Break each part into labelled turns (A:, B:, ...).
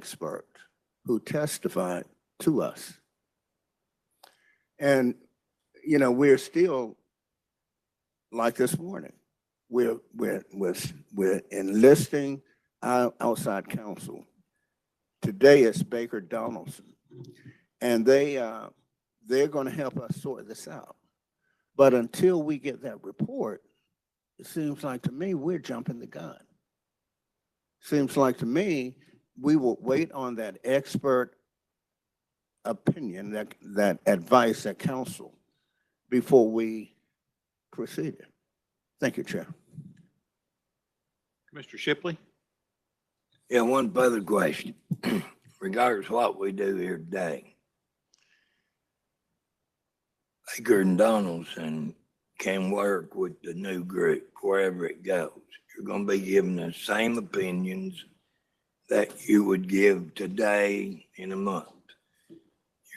A: expert who testified to us. And, you know, we're still like this morning. We're, we're, we're, we're enlisting our outside counsel. Today it's Baker Donaldson. And they, uh, they're going to help us sort this out. But until we get that report, it seems like to me, we're jumping the gun. Seems like to me, we will wait on that expert opinion, that, that advice, that counsel, before we proceed. Thank you, Chair.
B: Mr. Shipley?
C: Yeah, one further question, regardless of what we do here today. Baker and Donaldson can work with the new group wherever it goes. You're gonna be giving the same opinions that you would give today in a month.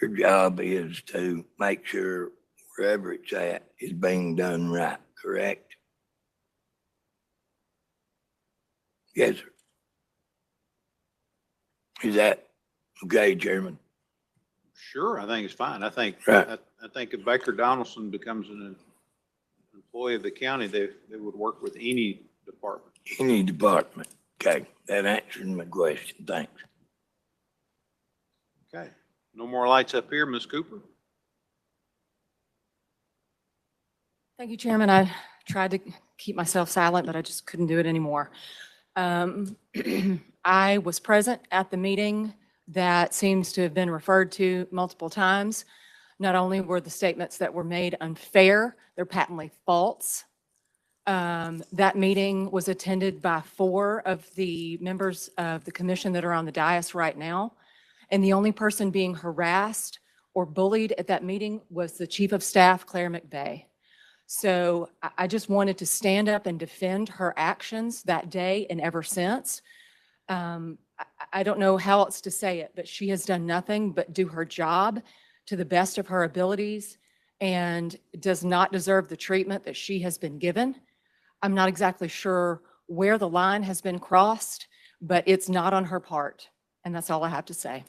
C: Your job is to make sure wherever it's at is being done right, correct? Yes, sir. Is that okay, Chairman?
B: Sure, I think it's fine. I think,
C: Right.
B: I I think if Baker Donaldson becomes an employee of the county, they, they would work with any department.
C: Any department. Okay, that answered my question. Thanks.
B: Okay. No more lights up here, Ms. Cooper?
D: Thank you, Chairman. I tried to keep myself silent, but I just couldn't do it anymore. Um, I was present at the meeting that seems to have been referred to multiple times. Not only were the statements that were made unfair, they're patently false. Um, That meeting was attended by four of the members of the commission that are on the dais right now. And the only person being harassed or bullied at that meeting was the Chief of Staff, Claire McVeigh. So I, I just wanted to stand up and defend her actions that day and ever since. Um, I, I- I don't know how else to say it, but she has done nothing but do her job to the best of her abilities and does not deserve the treatment that she has been given. I'm not exactly sure where the line has been crossed, but it's not on her part. And that's all I have to say.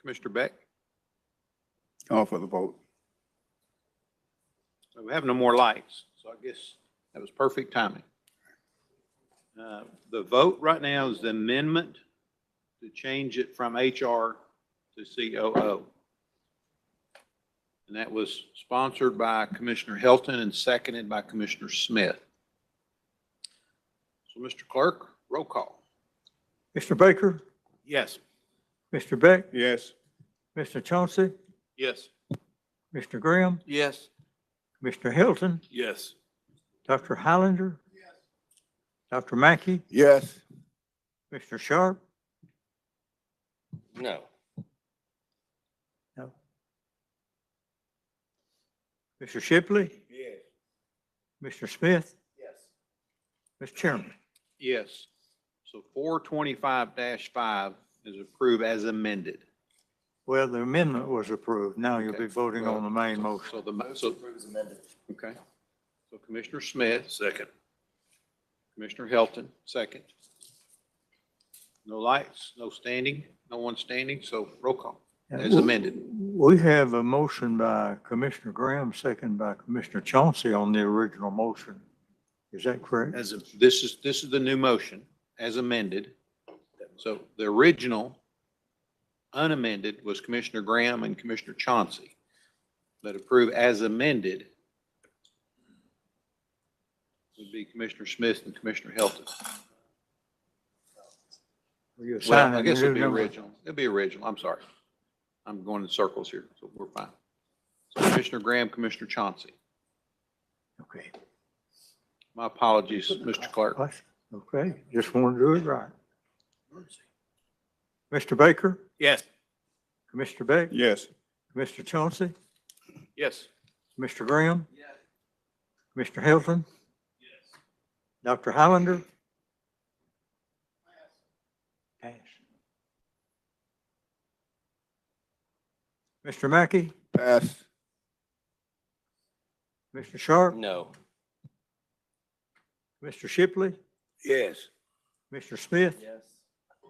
B: Commissioner Beck?
A: Call for the vote.
B: We have no more lights, so I guess that was perfect timing. Uh, The vote right now is the amendment to change it from HR to COO. And that was sponsored by Commissioner Hilton and seconded by Commissioner Smith. So, Mr. Clerk, roll call.
E: Mr. Baker,
B: Yes.
E: Mr. Beck,
A: Yes.
E: Mr. Chauncey,
B: Yes.
E: Mr. Graham,
B: Yes.
E: Mr. Hilton,
B: Yes.
E: Dr. Highlander, Dr. Mackey,
A: Yes.
E: Mr. Sharp,
B: No.
E: Mr. Shipley,
C: Yes.
E: Mr. Smith,
C: Yes.
E: Mr. Chairman.
B: Yes. So four twenty-five five is approved as amended.
E: Well, the amendment was approved. Now you'll be
B: Okay.
E: voting on the main motion.
B: So the, mo- so. Okay. So Commissioner Smith. Second. Commissioner Helton, second. No lights, no standing, no one standing, so roll call as amended.
E: We have a motion by Commissioner Graham, second by Commissioner Chauncey on the original motion. Is that correct?
B: As of, this is, this is the new motion as amended. So the original unamended was Commissioner Graham and Commissioner Chauncey that approve as amended would be Commissioner Smith and Commissioner Helton.
E: Are you
B: Well, I
E: assigning
B: guess
E: new
B: it'll be
E: number?
B: original. It'll be original. I'm sorry. I'm going in circles here, so we're fine. So Commissioner Graham, Commissioner Chauncey.
E: Okay.
B: My apologies, Mr. Clerk.
E: That's- Okay, just want to do it right. Mr. Baker? Yes. Commissioner Beck?
A: Yes.
E: Mr. Chauncey?
B: Yes.
E: Mr. Graham? Yes. Mr. Hilton? Yes. Dr. Highlander? Pass. Mr. Mackey?
A: Pass.
E: Mr. Sharp?
C: No.
E: Mr. Shipley?
C: Yes.
E: Mr. Smith?
C: Yes.